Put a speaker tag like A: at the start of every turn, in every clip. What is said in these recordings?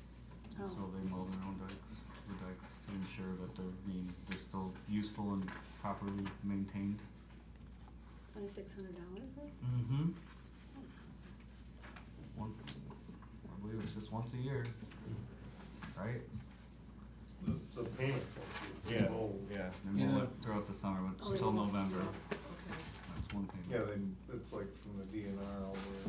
A: Oh.
B: I mean, they're still useful and properly maintained.
C: Twenty-six hundred dollars worth?
B: Mm-hmm. One, I believe it's just once a year, right?
D: The, the payments. that's it. Oh,
B: Yeah. And then
E: Yeah.
B: we'll let- uh, throughout the summer, but
C: Oh,
B: till
C: yeah.
B: November,
C: Okay.
B: that's one thing.
D: Yeah, then it's like from the DNR all the
E: I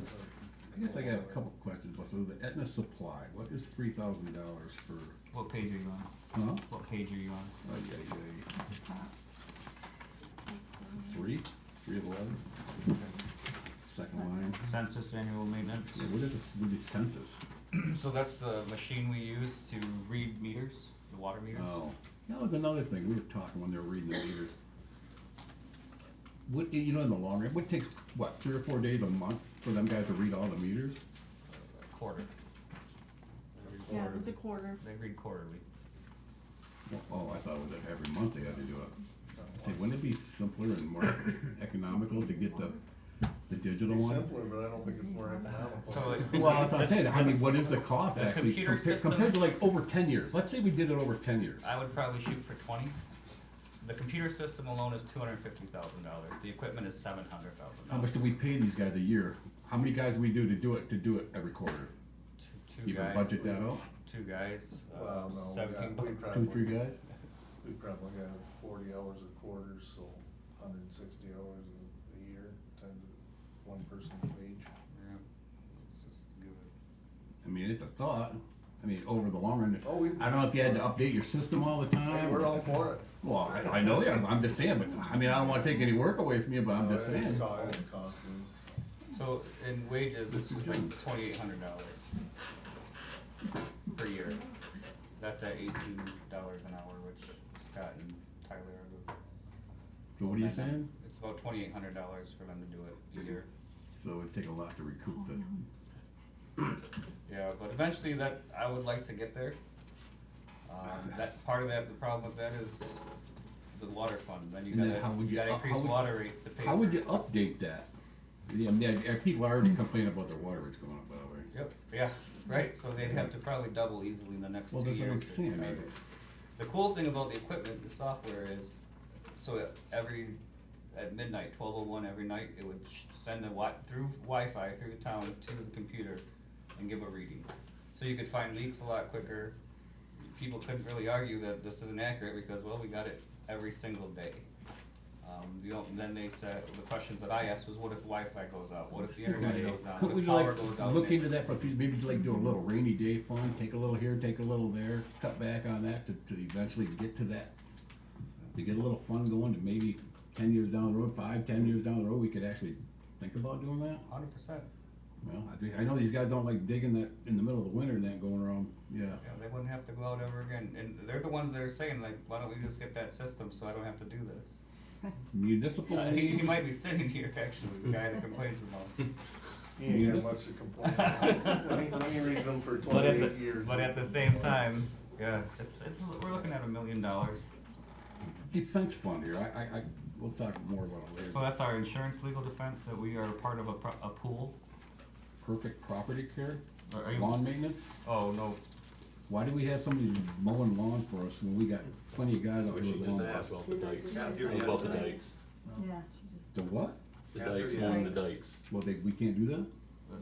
D: way.
E: guess I got a couple questions, but so the Aetna supply, what is three thousand dollars for,
B: What page are you on?
E: huh?
B: What page are you on?
E: Ay, ay, ay. Three, three of eleven? Second line.
B: Census annual maintenance.
E: Yeah, what is this, what is census?
B: So that's the machine we use to read meters, the water meters.
E: Oh, that was another thing, we were talking when they were reading the meters. What, you know, in the long run, what takes, what, three or four days a month for them guys to read all the meters?
B: Quarter.
A: Yeah, it's a quarter.
B: They read quarterly.
E: Well, Oh, I thought it was every month they had to do it. I said, wouldn't it be simpler and more economical to get the, the digital
D: It's
E: one?
D: simpler, but I don't think it's more economical.
B: So it's-
E: Well, that's what I'm saying. I mean, what is the cost
B: The
E: actually
B: computer
E: compared,
B: system-
E: compared to like over ten years? Let's say we did it over ten years.
B: I would probably shoot for twenty. The computer system alone is two hundred and fifty thousand dollars. The equipment is seven hundred thousand
E: How
B: dollars.
E: much do we pay these guys a year? How many guys we do to do it, to do it every quarter?
B: Two, two
E: You can
B: guys.
E: budget that out?
B: Two guys, uh,
D: Well, no, we
B: seventeen
D: got- we
B: bucks.
D: probably-
E: Two, three guys?
D: We probably got forty hours a quarter, so hundred and sixty hours a- a year times one person's wage.
B: Yeah. It's just good.
E: I mean, it's a thought. I mean, over the long run,
D: Oh, we-
E: I don't know if you had to update your system all the
D: Hey,
E: time.
D: we're all for it.
E: Well, I, I know, yeah, I'm just saying, but, I mean, I don't wanna take any work away from you, but I'm just
D: Uh, It's
E: saying.
D: co- it's costing.
B: So in wages, it's just like twenty-eight hundred dollars per year. That's at eighteen dollars an hour, which Scott and Tyler are.
E: So what are you saying?
B: It's about twenty-eight hundred dollars for them to do it a year.
E: So it'd take a lot to recoup the,
B: Yeah, but eventually that, I would like to get there. Um, that, part of that, the problem with that is the water fund, then you
E: And then how
B: gotta,
E: would
B: you
E: you-
B: gotta
E: how- how
B: increase
E: would-
B: water rates to pay for.
E: how would you update that? Yeah, I mean, uh, people already complain about their water rates going up, by the way.
B: Yep, yeah, right, so they'd have to probably double easily in the next two
E: Well,
B: years.
E: that's what I'm
B: to
E: saying,
B: start
E: I-
B: it. The cool thing about the equipment, the software is, so at every, at midnight, twelve oh one every night, it would sh- send a wi- through Wi-Fi through the town to the computer and give a reading. So you could find leaks a lot quicker. People couldn't really argue that this isn't accurate because, well, we got it every single day. Um, the, o- then they said, the questions that I asked was what if Wi-Fi goes out? What if the internet goes down? What
E: Couldn't we
B: if power
E: like
B: goes out?
E: look
B: Maybe-
E: into that for a few, maybe like do a little rainy day fund, take a little here, take a little there, cut back on that to, to eventually get to that. To get a little fund going to maybe ten years down the road, five, ten years down the road, we could actually think about doing that.
B: Hundred percent.
E: Well, I, do- I know these guys don't like digging that in the middle of the winter and that going around, yeah.
B: Yeah, they wouldn't have to go out ever again. And they're the ones that are saying like, why don't we just get that system so I don't have to do this?
E: Municipal.
B: Uh, he, he might be sitting here actually, the guy that complains the most.
D: He ain't got
E: Yes.
D: much to complain about. I think He reads them for
B: But at
D: twenty-eight
B: the,
D: years.
B: but at the same time, yeah, it's, it's, we're looking at a million dollars.
E: Defense fund here, I, I, I, we'll talk more about it
B: So
E: later.
B: that's our insurance legal defense that we are part of a, pro- a pool.
E: Perfect property care,
B: Are- are you-
E: lawn maintenance.
B: Oh, no,
E: Why do we have somebody mowing lawn for us when we got plenty of guys out here with lawn?
F: As well the dikes,
D: Yeah, if you're-
F: as well the dikes,
A: Yeah, she just.
E: The what?
F: the
D: After
F: dikes,
D: you-
F: mowing the dikes.
E: Well, they, we can't do that?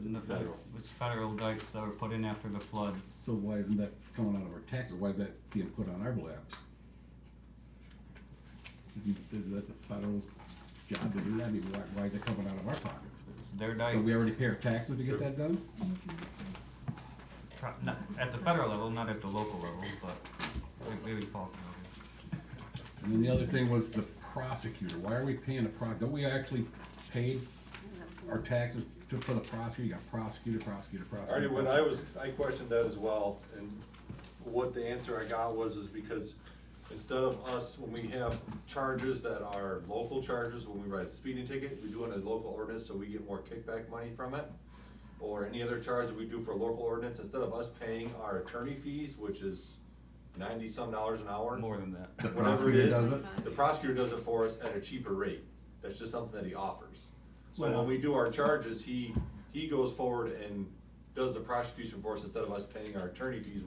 B: in uh, the federal,
F: Federal.
B: it's federal dikes that were put in after the flood.
E: So why isn't that coming out of our taxes? Why is that being put on our laps? Is is that the federal job to do that? I mean, why, why is it coming out of our pockets?
B: It's their
E: Don't we
B: dikes,
E: already pay our taxes to get that done?
B: Pro- not, at the federal level, not at the local level, but we, we would fall through.
E: And then the other thing was the prosecutor. Why are we paying a pro, don't we actually pay our taxes to, for the prosecutor? You got prosecutor, prosecutor, prosecutor.
G: Alrighty, when I was, I questioned that as well, and what the answer I got was is because instead of us, when we have charges that are local charges, when we write a speeding ticket, we do it in a local ordinance, so we get more kickback money from it. Or any other charge that we do for local ordinance, instead of us paying our attorney fees, which is ninety-some dollars an hour.
B: More than that.
E: The
G: Whatever it is,
E: prosecutor does
G: the prosecutor does it for us at a cheaper rate. That's just something that he offers. So
E: Well-
G: when we do our charges, he, he goes forward and does the prosecution for us instead of us paying our attorney fees, which